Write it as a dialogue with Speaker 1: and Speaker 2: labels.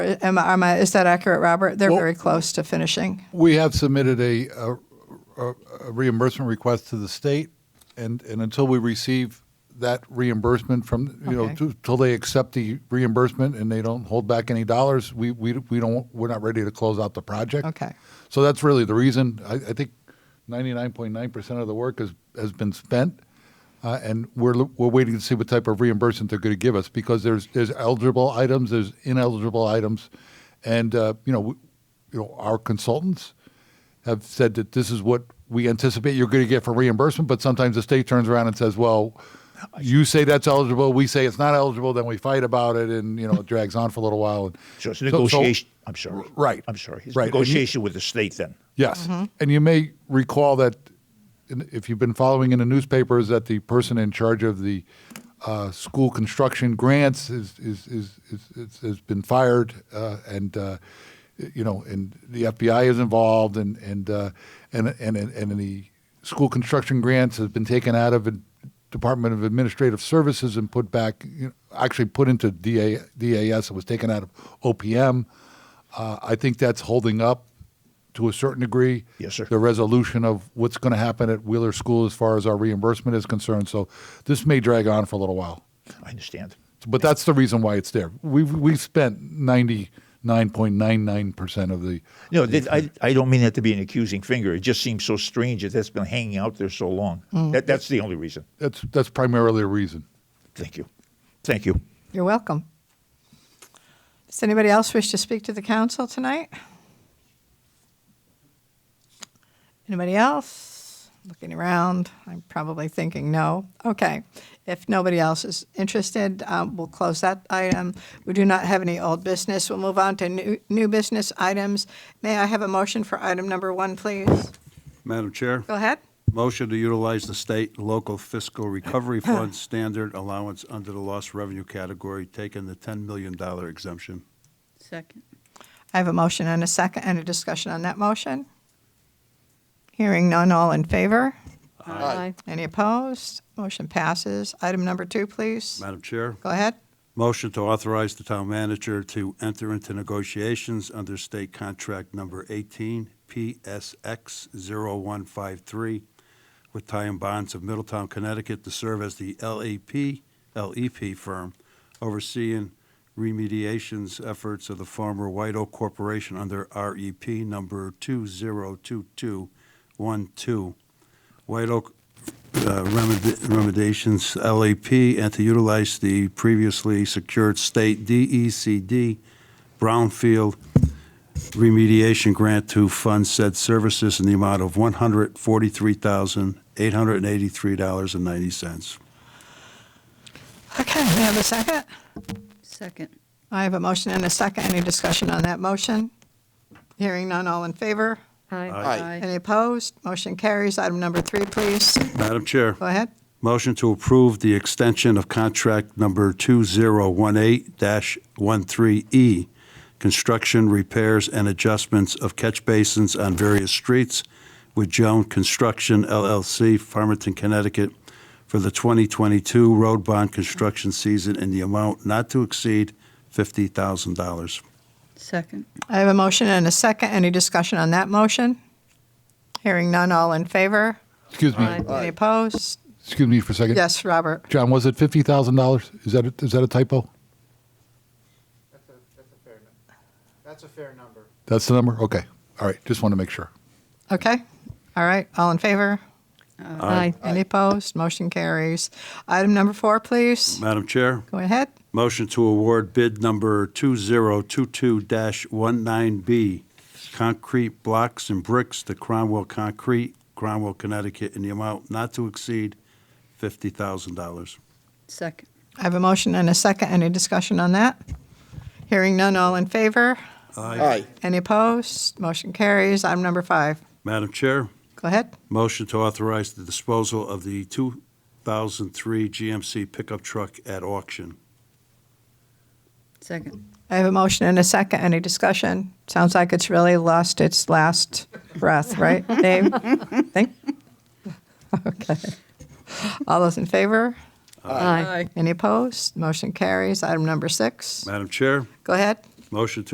Speaker 1: Am, I- am I, is that accurate, Robert? They're
Speaker 2: Well-
Speaker 1: very close to finishing.
Speaker 2: We have submitted a, a, a- a reimbursement request to the state, and, and until we receive that reimbursement from, you know,
Speaker 1: Okay.
Speaker 2: to- till they accept the reimbursement and they don't hold back any dollars, we, we, we don't, we're not ready to close out the project.
Speaker 1: Okay.
Speaker 2: So that's really the reason. I, I think ninety-nine point nine percent of the work has, has been spent. Uh, and we're, lo- we're waiting to see what type of reimbursement they're going to give us because there's, there's eligible items, there's ineligible items. And, uh, you know, we, you know, our consultants have said that this is what we anticipate you're going to get for reimbursement, but sometimes the state turns around and says, well, you say that's eligible, we say it's not eligible, then we fight about it and, you know, it drags on for a little while. And
Speaker 3: So it's
Speaker 2: so-
Speaker 3: negotiation. I'm sorry.
Speaker 2: Right.
Speaker 3: I'm sorry. It's
Speaker 2: Right. And you-
Speaker 3: negotiation with the state then.
Speaker 2: Yes. And you may recall that in- if you've been following in the newspapers, that the person in charge of the uh, school construction grants is, is, is, is, is, has been fired, uh, and uh, you know, and the FBI is involved, and and uh, and and and the school construction grants has been taken out of the Department of Administrative Services and put back, you know, actually put into DA, DAS. It was taken out of OPM. Uh, I think that's holding up to a certain degree.
Speaker 3: Yes, sir.
Speaker 2: The resolution of what's going to happen at Wheeler School as far as our reimbursement is concerned. So this may drag on for a little while.
Speaker 3: I understand.
Speaker 2: But that's the reason why it's there. We've, we've spent 99.99% of the.
Speaker 3: No, that, I, I don't mean that to be an accusing finger. It just seems so strange that that's been hanging out there so long. That, that's the only reason.
Speaker 2: That's, that's primarily a reason.
Speaker 3: Thank you. Thank you.
Speaker 1: You're welcome. Does anybody else wish to speak to the council tonight? Anybody else? Looking around, I'm probably thinking no. Okay, if nobody else is interested, um, we'll close that item. We do not have any old business. We'll move on to new, new business items. May I have a motion for item number one, please?
Speaker 4: Madam Chair,
Speaker 1: Go ahead.
Speaker 4: motion to utilize the state and local fiscal recovery fund standard allowance under the lost revenue category, taking the $10 million exemption.
Speaker 5: Second.
Speaker 1: I have a motion and a second and a discussion on that motion. Hearing none, all in favor?
Speaker 5: Aye.
Speaker 1: Any opposed? Motion passes. Item number two, please.
Speaker 4: Madam Chair,
Speaker 1: Go ahead.
Speaker 4: motion to authorize the town manager to enter into negotiations under state contract number 18, PSX 0153, with Ty and Bonds of Middletown, Connecticut, to serve as the LEP, LEP E firm overseeing remediations efforts of the former White Oak Corporation under REP number 202212. White Oak uh, remed- remediations LEP and to utilize the previously secured state DECD brownfield remediation grant to fund said services in the amount of $143,883.90.
Speaker 1: Okay, may I have a second?
Speaker 5: Second.
Speaker 1: I have a motion and a second. Any discussion on that motion? Hearing none, all in favor? Any opposed? Motion carries. Item number three, please.
Speaker 4: Madam Chair.
Speaker 1: Go ahead.
Speaker 4: Motion to approve the extension of contract number 2018-13E, E, construction, repairs, and adjustments of catch basins on various streets with Joan Construction LLC, Farmington, Connecticut, for the 2022 road bond construction season in the amount not to exceed $50,000.
Speaker 5: Second.
Speaker 1: I have a motion and a second. Any discussion on that motion? Hearing none, all in favor?
Speaker 2: Excuse me.
Speaker 5: Aye.
Speaker 1: Any opposed?
Speaker 2: Excuse me for a second.
Speaker 1: Yes, Robert.
Speaker 2: John, was it $50,000? Is that a, is that a typo?
Speaker 6: That's a, that's a fair, nu- that's a fair number.
Speaker 2: That's the number? Okay. All right. Just want to make sure.
Speaker 1: Okay, all right, all in favor? Aye. Any opposed? Motion carries. Item number four, please.
Speaker 4: Madam Chair?
Speaker 1: Go ahead.
Speaker 4: Motion to award bid number 2022-19B, concrete blocks and bricks to Cromwell Concrete, Cromwell, Connecticut, in the amount not to exceed $50,000.
Speaker 5: Second.
Speaker 1: I have a motion and a second. Any discussion on that? Hearing none, all in favor?
Speaker 3: Aye.
Speaker 1: Any opposed? Motion carries. Item number five.
Speaker 4: Madam Chair,
Speaker 1: Go ahead.
Speaker 4: motion to authorize the disposal of the 2003 GMC pickup truck at auction.
Speaker 5: Second.
Speaker 1: I have a motion and a second. Any discussion? Sounds like it's really lost its last breath, right, Dave? Think? Okay. All those in favor?
Speaker 5: Aye.
Speaker 1: Any opposed? Motion carries. Item number six.
Speaker 4: Madam Chair,
Speaker 1: Go ahead.
Speaker 4: motion to